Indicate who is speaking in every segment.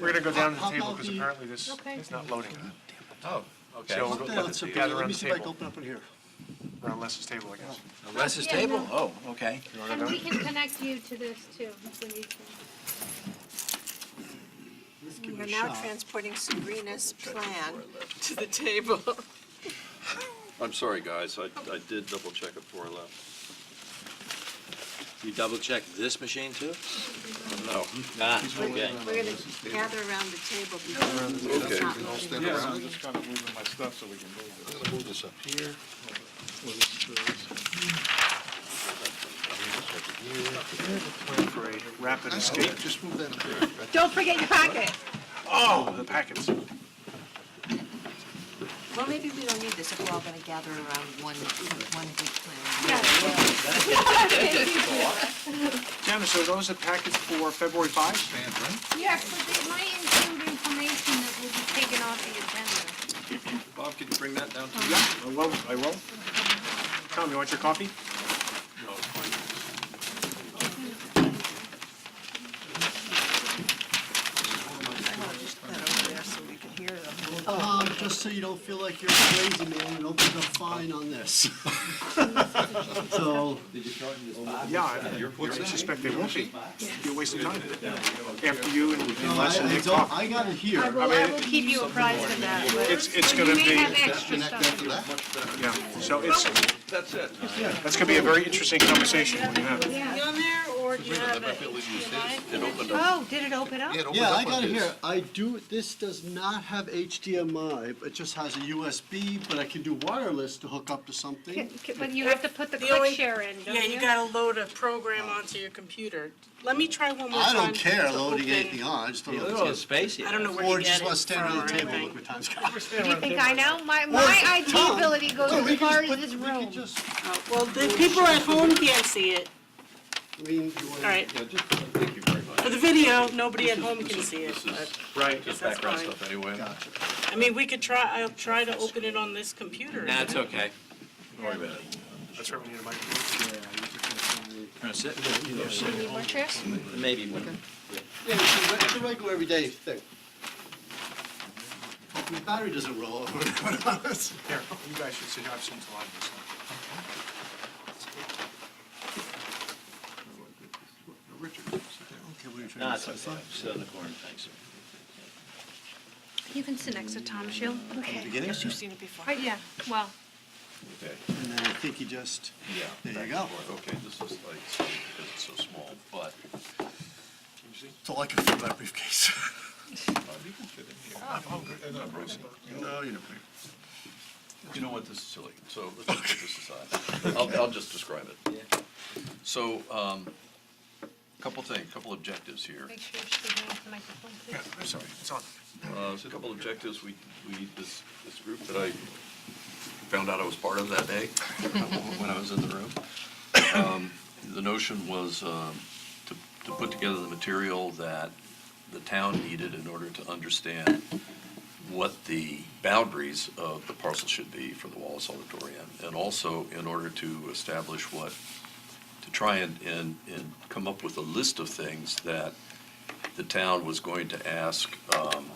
Speaker 1: We're gonna go down to the
Speaker 2: How
Speaker 1: table
Speaker 2: about
Speaker 1: because
Speaker 2: the-
Speaker 1: apparently this
Speaker 3: Okay.
Speaker 1: is not loading. uh,
Speaker 4: Oh, okay.
Speaker 1: So
Speaker 2: How
Speaker 1: we'll
Speaker 2: about
Speaker 1: go-
Speaker 2: that?
Speaker 1: let
Speaker 2: Let's
Speaker 1: the
Speaker 2: see-
Speaker 1: gather
Speaker 2: Let
Speaker 1: around
Speaker 2: me
Speaker 1: the
Speaker 2: see if I can
Speaker 1: table,
Speaker 2: open up in here.
Speaker 1: around Les's table, I guess.
Speaker 4: Les is
Speaker 3: Yeah, yeah.
Speaker 4: table? Oh, okay.
Speaker 3: And we can connect you to this too, if we need to.
Speaker 2: Let's give
Speaker 5: We
Speaker 2: it
Speaker 5: are
Speaker 2: a
Speaker 5: now
Speaker 2: shot.
Speaker 5: transporting Sabrina's plan to the table.
Speaker 6: I'm sorry, guys, I, I did double check it before I left.
Speaker 7: You double check this machine too?
Speaker 6: No.
Speaker 7: Ah, okay.
Speaker 5: We're going to gather around the table because
Speaker 6: Okay.
Speaker 5: it's not
Speaker 8: I'll
Speaker 5: moving.
Speaker 8: stand around, I'm just kind of moving my stuff so we can move
Speaker 6: I'm
Speaker 8: this.
Speaker 6: gonna move this up here.
Speaker 1: Wait for a rapid escape.
Speaker 8: Just move that up there.
Speaker 3: Don't forget your packet.
Speaker 1: Oh, the packets.
Speaker 5: Well, maybe we don't need this if we're all going to gather around one, one big plan.
Speaker 1: Janice, so are those the packets for February 5?
Speaker 3: Yes, but they might include information that will be taken off the agenda.
Speaker 6: Bob, could you bring that down to me?
Speaker 1: Yeah, I will, I will. Tom, you want your coffee?
Speaker 6: No, it's fine.
Speaker 5: I'll just put that over there so we can hear them.
Speaker 2: Um, just so you don't feel like you're crazy, man, it opens up fine on this. So,
Speaker 1: Yeah, I- I suspect they won't be. You're wasting time. After you and
Speaker 2: no,
Speaker 1: and
Speaker 2: I,
Speaker 1: Les will
Speaker 2: I
Speaker 1: take
Speaker 2: don't, I
Speaker 1: coffee.
Speaker 2: got it here.
Speaker 3: I will, I will keep you apprised of that.
Speaker 1: It's, it's
Speaker 3: You
Speaker 1: gonna
Speaker 3: may
Speaker 1: be,
Speaker 3: have extra
Speaker 8: Connect
Speaker 3: stuff.
Speaker 8: after that?
Speaker 1: yeah, so it's,
Speaker 6: That's it.
Speaker 1: that's gonna be a very interesting conversation when you have it.
Speaker 3: Yeah.
Speaker 5: on there, or do you have it?
Speaker 6: It opened up.
Speaker 3: Oh, did it open up?
Speaker 8: it opened
Speaker 2: Yeah,
Speaker 8: up on
Speaker 2: I got it
Speaker 8: his.
Speaker 2: here. I do, this does not have HDMI, it just has a USB, but I can do wireless to hook up to something.
Speaker 3: But you have to put the
Speaker 9: The
Speaker 3: click
Speaker 9: only-
Speaker 3: share in, don't you?
Speaker 9: Yeah, you gotta load a program onto your computer. Let me try one more time.
Speaker 2: I don't care
Speaker 9: to
Speaker 2: loading
Speaker 9: open.
Speaker 2: anything on, I just don't know.
Speaker 7: It's spacey.
Speaker 9: I don't know where
Speaker 2: Or
Speaker 9: you get
Speaker 2: just
Speaker 9: it
Speaker 2: want to stand around the
Speaker 9: from or
Speaker 2: table and look
Speaker 9: anything.
Speaker 2: what time's gone.
Speaker 3: Do you think I know? My,
Speaker 2: Well,
Speaker 3: my IT
Speaker 2: Tom,
Speaker 3: ability goes
Speaker 2: no, we can
Speaker 3: as
Speaker 2: just
Speaker 3: far as
Speaker 2: put-
Speaker 3: this
Speaker 2: We
Speaker 3: room.
Speaker 2: can just,
Speaker 9: Oh, Well, the people at home can't see it.
Speaker 2: I mean, you want
Speaker 9: All right,
Speaker 6: Yeah, just, thank you very much.
Speaker 9: for the video, nobody at home can see it,
Speaker 6: This
Speaker 9: but,
Speaker 6: is
Speaker 1: Right.
Speaker 6: just
Speaker 9: That's
Speaker 6: background
Speaker 9: fine.
Speaker 6: stuff anyway.
Speaker 9: I mean, we could try, I'll try to open it on this computer.
Speaker 7: Nah, it's okay.
Speaker 6: Don't worry about it.
Speaker 1: That's right, we need a microphone.
Speaker 7: Wanna sit?
Speaker 3: Need more chairs?
Speaker 7: Maybe one.
Speaker 2: Yeah, it's a, it's a regular everyday thing. Hopefully the battery doesn't roll over.
Speaker 1: Here, you guys should sit, I've seen a lot of this.
Speaker 7: Nah, it's okay. Sit in the corner, thanks.
Speaker 3: You can sit next to Tom Shield. Okay.
Speaker 5: Yes, you've seen it before.
Speaker 3: Right, Oh, yeah, well,
Speaker 6: Okay,
Speaker 2: And then I think you just,
Speaker 6: yeah.
Speaker 2: there you go.
Speaker 6: Okay, this is like, because it's so small, but,
Speaker 2: It's all I can fit in my briefcase.
Speaker 6: uh, you can fit in here. Oh, I'm hungry. I'm not bracing.
Speaker 2: No, you're not.
Speaker 6: You know what, this is silly, so let's just put this aside. I'll, I'll just describe it. So, um, couple things, couple objectives here.
Speaker 3: make sure she's speaking into the microphone, please.
Speaker 1: I'm sorry, it's on.
Speaker 6: Uh, There's a couple objectives, we, we, this, this group that I found out I was part of that day when I was in the room. Um, The notion was um, to, to put together the material that the town needed in order to understand what the boundaries of the parcel should be for the Wallace Auditorium, and also in order to establish what, to try and, and, and come up with a list of things that the town was going to ask um,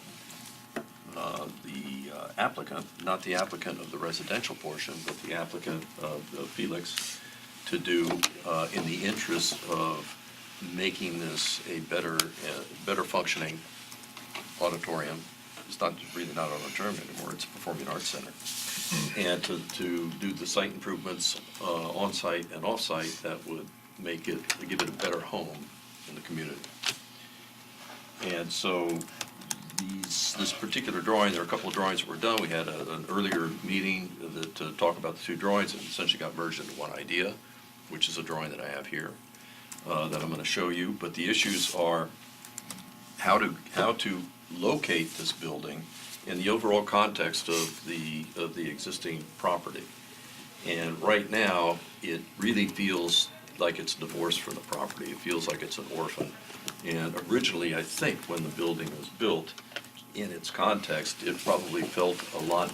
Speaker 6: uh, the uh, applicant, not the applicant of the residential portion, but the applicant of of Felix, to do uh, in the interest of making this a better, uh, better functioning auditorium. It's not, really not an auditorium anymore, it's a performing arts center. And to, to do the site improvements uh, on-site and off-site that would make it, give it a better home in the community. And so these, this particular drawing, there are a couple of drawings that were done. We had a- an earlier meeting that- to talk about the two drawings and essentially got merged into one idea, which is a drawing that I have here uh, that I'm going to show you. But the issues are how to, how to locate this building in the overall context of the, of the existing property. And right now, it really feels like it's divorced from the property. It feels like it's an orphan. And originally, I think, when the building was built, in its context, it probably felt a lot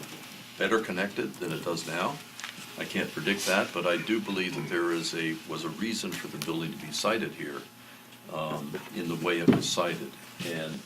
Speaker 6: better connected than it does now. I can't predict that, but I do believe that there is a, was a reason for the building to be sited here um, in the way it was sited. And